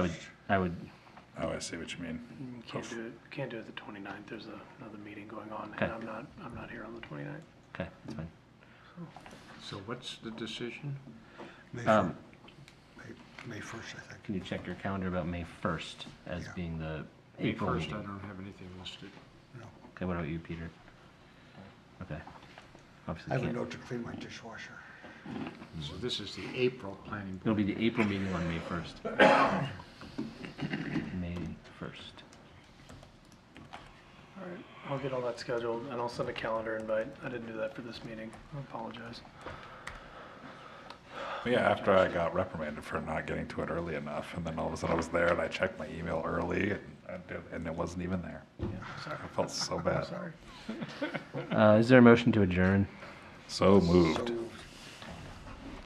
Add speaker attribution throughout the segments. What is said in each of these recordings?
Speaker 1: would, I would,
Speaker 2: Oh, I see what you mean.
Speaker 3: Can't do it, can't do it the 29th. There's a- another meeting going on,
Speaker 1: Okay.
Speaker 3: and I'm not, I'm not here on the 29th.
Speaker 1: okay, that's fine.
Speaker 4: So what's the decision?
Speaker 5: May
Speaker 1: Um,
Speaker 5: 1st, May 1st, I think.
Speaker 1: Can you check your calendar about May 1st as
Speaker 5: Yeah.
Speaker 1: being the
Speaker 4: May
Speaker 1: April
Speaker 4: 1st, I
Speaker 1: meeting?
Speaker 4: don't have anything listed.
Speaker 5: No.
Speaker 1: Okay, what about you, Peter? Okay.
Speaker 5: I
Speaker 1: Obviously
Speaker 5: have a
Speaker 1: can't.
Speaker 5: note to clean my dishwasher.
Speaker 4: So
Speaker 1: Mm-hmm.
Speaker 4: this is the April planning
Speaker 1: It'll
Speaker 4: board.
Speaker 1: be the April meeting on May 1st. May 1st.
Speaker 3: All right, I'll get all that scheduled, and I'll send a calendar invite. I didn't do that for this meeting. I apologize.
Speaker 2: Yeah, after I got reprimanded for not getting to it early enough, and then all of a sudden I was there and I checked my email early and, I did- and it wasn't even there.
Speaker 3: Sorry.
Speaker 2: I felt so bad.
Speaker 3: Sorry.
Speaker 1: Uh, Is there a motion to adjourn?
Speaker 2: So moved.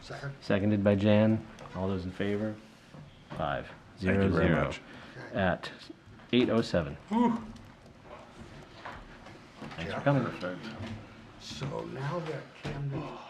Speaker 5: So, second?
Speaker 1: Seconded by Jan. All those in favor? Five,
Speaker 2: Thank
Speaker 1: zero,
Speaker 2: you very
Speaker 1: zero.
Speaker 2: much.
Speaker 1: At 8:07. Thanks for coming.
Speaker 5: So now that Camden